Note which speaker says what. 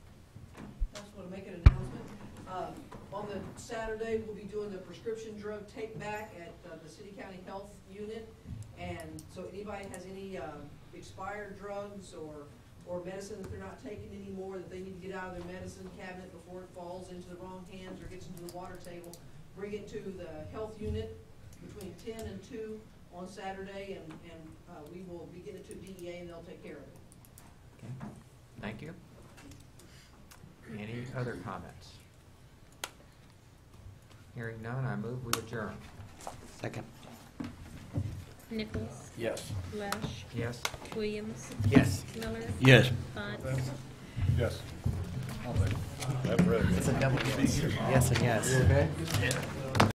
Speaker 1: Um, on the Saturday, we'll be doing the prescription drug take back at uh, the city county health unit. And so anybody has any uh, expired drugs or, or medicine that they're not taking anymore, that they need to get out of their medicine cabinet before it falls into the wrong hands or gets into the water table, bring it to the health unit between ten and two on Saturday and, and uh, we will be getting it to DEA and they'll take care of it.
Speaker 2: Okay, Thank you. Any other comments? Hearing none, I move we adjourn.
Speaker 3: Second.
Speaker 4: Nichols?
Speaker 3: Yes.
Speaker 4: Lesh?
Speaker 2: Yes?
Speaker 4: Williams?
Speaker 3: Yes.
Speaker 4: Miller?
Speaker 3: Yes.
Speaker 4: Bunce?
Speaker 5: Yes. I'm ready.
Speaker 3: It's a double yes. Yes and yes.
Speaker 2: okay?